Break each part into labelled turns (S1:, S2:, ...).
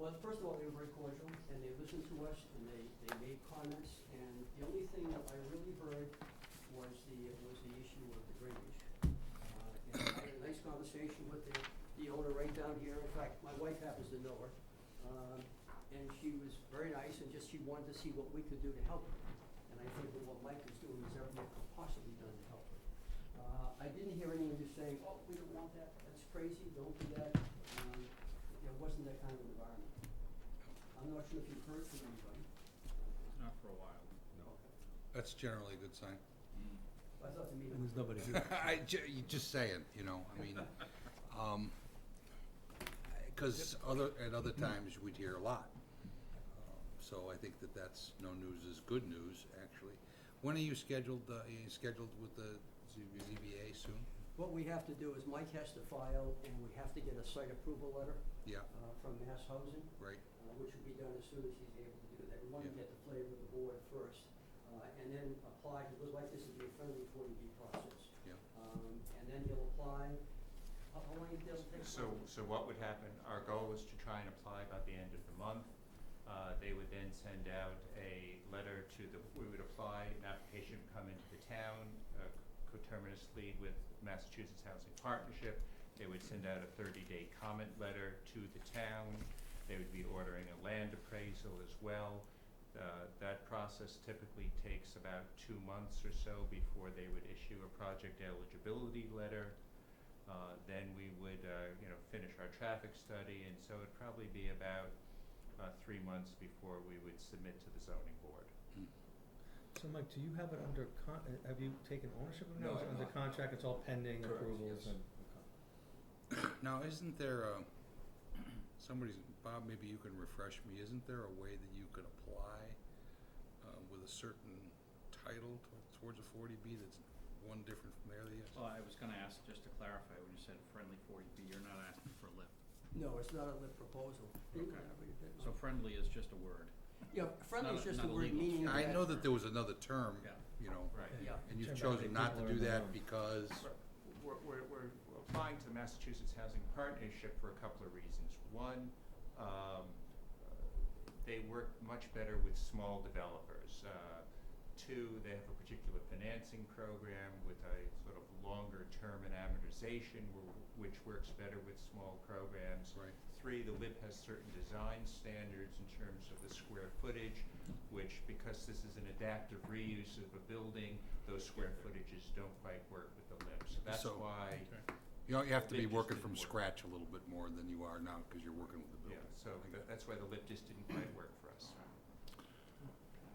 S1: Well, first of all, they were very cordial, and they listened to us, and they, they made comments, and the only thing that I really heard was the, was the issue of the drainage. Uh, And I had a nice conversation with the, the owner right down here, in fact, my wife happens to know her. Um, And she was very nice, and just she wanted to see what we could do to help her. And I think that what Mike is doing is everything that could possibly be done to help her. Uh, I didn't hear anyone just saying, oh, we don't want that, that's crazy, don't do that. Um, There wasn't that kind of environment. I'm not sure if you've heard from anybody.
S2: Not for a while.
S3: That's generally a good sign.
S1: I thought the meeting.
S4: And there's nobody here.
S3: I, ju- you just saying, you know, I mean, um, cause other, at other times, we'd hear a lot. So I think that that's, no news is good news, actually. When are you scheduled, uh, are you scheduled with the ZBA soon?
S1: What we have to do is Mike has to file, and we have to get a site approval letter
S3: Yeah,
S1: uh, from Mass Housing,
S3: right,
S1: uh, which will be done as soon as he's able to do that. We want to
S3: Yeah.
S1: get the flavor of the board first, uh, and then apply, he would like this to be a friendly 40B process.
S3: yeah.
S1: Um, And then he'll apply, how how long it does take?
S2: So, so what would happen, our goal was to try and apply by the end of the month. Uh, they would then send out a letter to the, we would apply, an application would come into the town, uh, coterminously with Massachusetts Housing Partnership. They would send out a thirty-day comment letter to the town. They would be ordering a land appraisal as well. Uh, that process typically takes about two months or so before they would issue a project eligibility letter. Uh, then we would, uh, you know, finish our traffic study, and so it'd probably be about, uh, three months before we would submit to the zoning board.
S4: So Mike, do you have it under con, uh, have you taken ownership of it?
S3: No,
S4: Is it
S3: I've
S4: under
S3: not.
S4: contract, it's all pending
S3: Correct,
S4: approvals
S3: yes.
S4: and?
S3: Now, isn't there a, somebody's, Bob, maybe you can refresh me, isn't there a way that you could apply uh, with a certain title to- towards a forty B that's one different from the other? yes?
S5: Well, I was gonna ask, just to clarify, when you said friendly forty B, you're not asking for a lift.
S1: No, it's not a lit proposal.
S5: Okay. So
S1: Uh,
S5: friendly is just a word.
S1: Yeah, friendly
S5: not
S1: is
S5: a-
S1: just
S5: not
S1: the
S5: a
S1: word
S5: legal
S1: meaning
S3: I know
S1: that-
S3: that there was another term,
S5: Yeah.
S3: you know,
S2: Right.
S1: Yeah.
S3: and you've
S4: Turns out
S3: chosen
S4: they
S3: not to
S4: people are
S3: do
S4: in the
S3: that
S4: wrong.
S3: because,
S2: We're, we're, we're applying to the Massachusetts Housing Partnership for a couple of reasons. One, um, they work much better with small developers. Uh, Two, they have a particular financing program with a sort of longer-term and amortization, wh- which works better with small programs.
S3: right,
S2: Three, the LIP has certain design standards in terms of the square footage, which, because this is an adaptive reuse of a building, those square footages don't quite work with the LIP. So that's
S3: So-
S2: why,
S3: you know, you have to
S2: They
S3: be
S2: just
S3: working
S2: didn't
S3: from
S2: work.
S3: scratch a little bit more than you are now because you're working with the
S2: yeah,
S3: building.
S2: so
S3: I
S2: tha-
S3: got it.
S2: that's why the LIP just didn't quite work for us.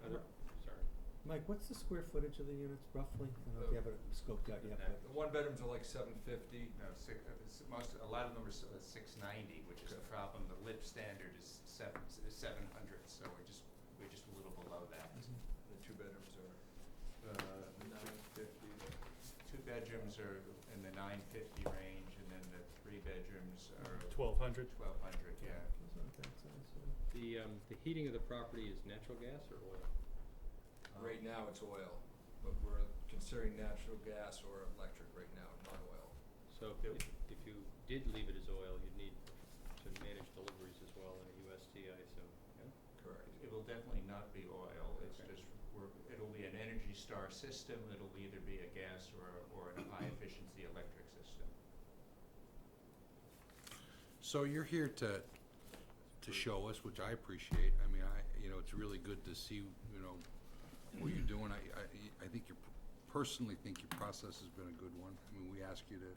S4: Other-
S6: sorry.
S4: Mike, what's the square footage of the units roughly? I don't know if you have it scoped out yet, but.
S6: The one bedrooms are like seven fifty.
S2: No, six, uh, s- most, a lot of them are s- uh, six ninety, which is the problem. The LIP standard is seven, seven hundred, so we're just, we're just a little below that.
S6: The two bedrooms are uh, nine fifty.
S2: Two bedrooms are in the nine fifty range, and then the three bedrooms are
S7: Twelve hundred?
S2: twelve hundred, yeah.
S4: It's not that size, so-
S7: The, um, the heating of the property is natural gas or oil?
S6: Right now it's oil, but we're considering natural gas or electric right now, not oil.
S7: So if, if- if you did leave it as oil, you'd need to manage deliveries as well in a USDI, so, yeah?
S6: Correct.
S2: It'll definitely not be oil, it's
S7: Okay.
S2: just, we're, it'll be an Energy Star system, it'll either be a gas or, or a high-efficiency electric system.
S3: So you're here to, to show us, which I appreciate. I mean, I, you know, it's really good to see, you know, what you're doing. I, I, I think you personally think your process has been a good one. I mean, we ask you to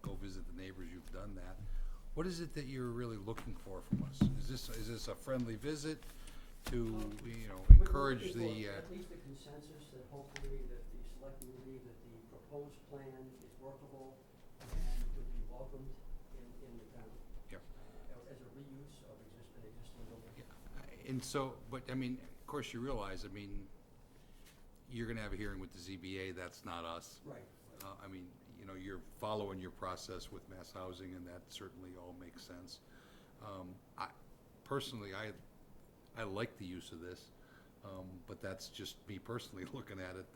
S3: go visit the neighbors, you've done that. What is it that you're really looking for from us? Is this, is this a friendly visit to, you know,
S1: We're
S3: encourage
S1: looking
S3: the,
S1: for
S3: uh,
S1: At least a consensus that hopefully that the selectmen believe that the proposed plan is workable and would be welcomed in, in the town.
S3: Yep.
S1: uh, As a reuse of exist- an existing building.
S3: Yeah, And so, but I mean, of course you realize, I mean, you're gonna have a hearing with the ZBA, that's not us.
S1: Right.
S3: Uh, I mean, you know, you're following your process with mass housing and that certainly all makes sense. Um, I, personally, I, I like the use of this, um, but that's just me personally looking at it.